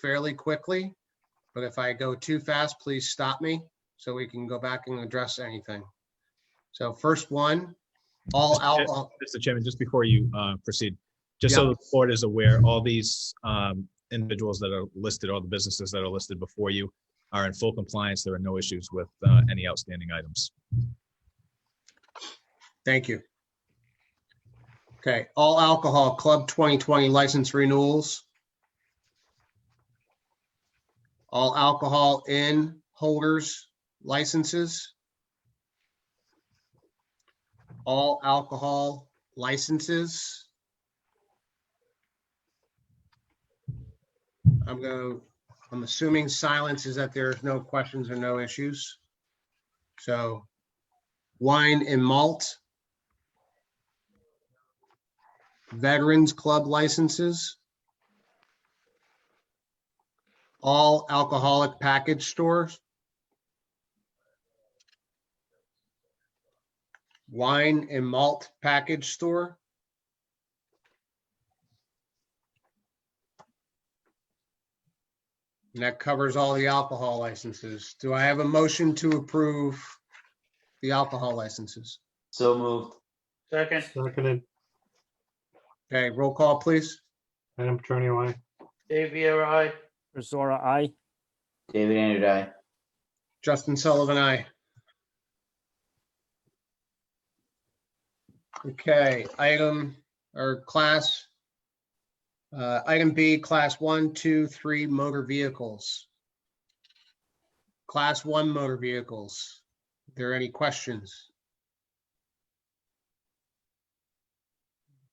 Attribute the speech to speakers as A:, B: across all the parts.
A: fairly quickly. But if I go too fast, please stop me so we can go back and address anything. So first one, all alcohol,
B: Mr. Chairman, just before you uh, proceed, just so the board is aware, all these um, individuals that are listed, all the businesses that are listed before you are in full compliance. There are no issues with uh, any outstanding items.
A: thank you. Okay, all alcohol club 2020 license renewals. All alcohol in holders licenses. All alcohol licenses. I'm going, I'm assuming silence is that there's no questions or no issues. So wine and malt. Veterans Club licenses. All alcoholic package stores. Wine and malt package store. And that covers all the alcohol licenses. Do I have a motion to approve the alcohol licenses?
C: So moved.
D: Second,
E: Seconded,
A: Okay, roll call, please.
E: Madam Attorney, why?
D: Dave Viera, aye.
F: Rosora, I.
C: David Andrew, aye.
A: Justin Sullivan, I. Okay, item or class. uh, Item B, class one, two, three motor vehicles. Class one motor vehicles. Are There any questions?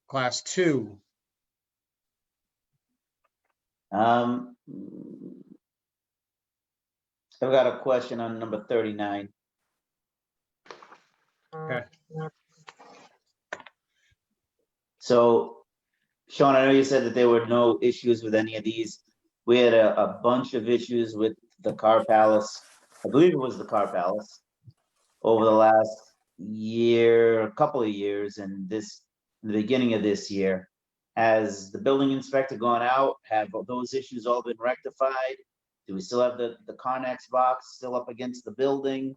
A: Class two,
C: Um, I've got a question on number thirty-nine.
A: Okay.
C: So, Sean, I know you said that there were no issues with any of these. We had a, a bunch of issues with the Car Palace. I believe it was the Car Palace over the last year, a couple of years, and this, the beginning of this year. Has the building inspector gone out? Have those issues all been rectified? Do we still have the, the Connex box still up against the building?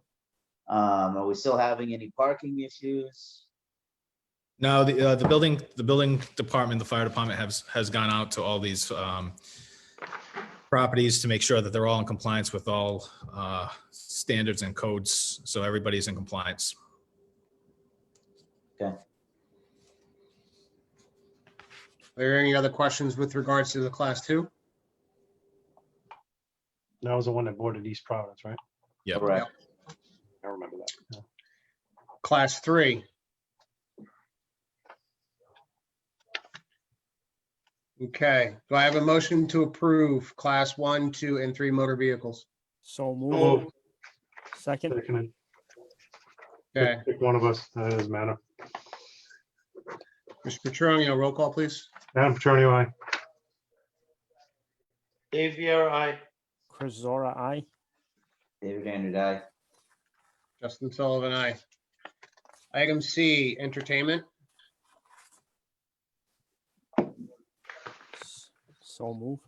C: Um, are we still having any parking issues?
B: No, the, uh, the building, the building department, the fire department has, has gone out to all these, um, properties to make sure that they're all in compliance with all, uh, standards and codes. So everybody's in compliance.
A: are there any other questions with regards to the class two?
E: That was the one that bordered East Providence, right?
B: Yep.
C: Correct.
E: I remember that. yeah.
A: Class three. Okay, do I have a motion to approve class one, two, and three motor vehicles?
F: So
E: Oh,
A: Mm.
F: moved. Second,
E: seconded.
A: Okay,
E: Pick- pick One of us, that doesn't matter.
A: Mr. Petronio, roll call, please.
E: Madam Attorney, why?
D: Dave Viera, aye.
F: Chris Zora, I.
C: David Andrew, aye.
A: Justin Sullivan, I. Item C, entertainment.
F: So moved.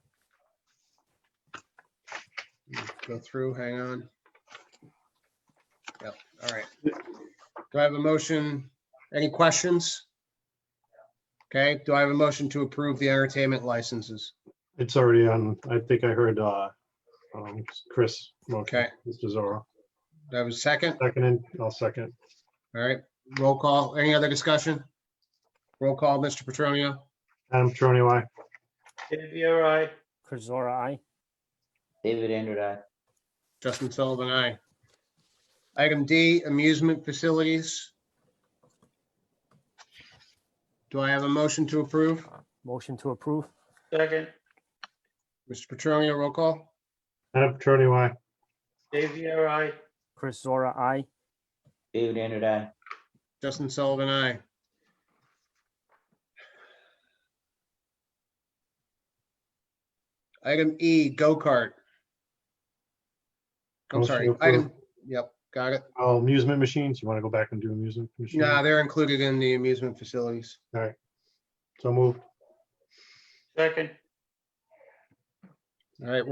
A: Go through, hang on. Yep, all right. Do I have a motion? Any questions? Okay, do I have a motion to approve the entertainment licenses?
E: It's already on, I think I heard, uh, um, Chris.
A: Okay,
E: Mr. Zorro.
A: do I have a second?
E: Seconded, I'll second.
A: All right, roll call. Any other discussion? Roll call, Mr. Petronio.
E: Madam Attorney, why?
D: Dave Viera, aye.
F: Chris Zora, I.
C: David Andrew, aye.
A: Justin Sullivan, aye. Item D, amusement facilities. Do I have a motion to approve?
F: Motion to approve.
D: Second,
A: Mr. Petronio, roll call.
E: Madam Attorney, why?
D: Dave Viera, aye.
F: Chris Zora, I.
C: David Andrew, aye.
A: Justin Sullivan, aye. Item E, go-kart. I'm
E: Motion
A: sorry,
E: to approve.
A: item, yep, got it.
E: Oh, amusement machines, you want to go back and do amusement machines?
A: Nah, they're included in the amusement facilities.
E: So move,
D: Second,
A: All right,